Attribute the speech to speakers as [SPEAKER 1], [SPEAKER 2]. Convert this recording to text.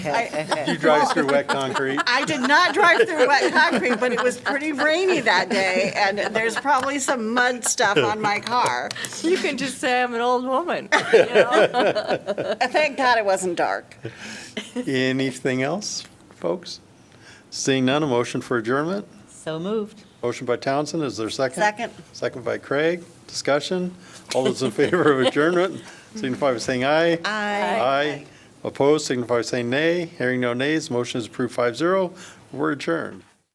[SPEAKER 1] I
[SPEAKER 2] You drive through wet concrete?
[SPEAKER 1] I did not drive through wet concrete, but it was pretty rainy that day, and there's probably some mud stuff on my car.
[SPEAKER 3] You can just say I'm an old woman.
[SPEAKER 1] Thank God it wasn't dark.
[SPEAKER 2] Anything else, folks? Seeing none, a motion for adjournment?
[SPEAKER 3] So moved.
[SPEAKER 2] Motion by Townsend, is there a second?
[SPEAKER 1] Second.
[SPEAKER 2] Second by Craig, discussion. All those in favor of adjournment, signify by saying aye. Aye. Opposed, signify by saying nay. Hearing no nays, motion is approved 5-0. We're adjourned.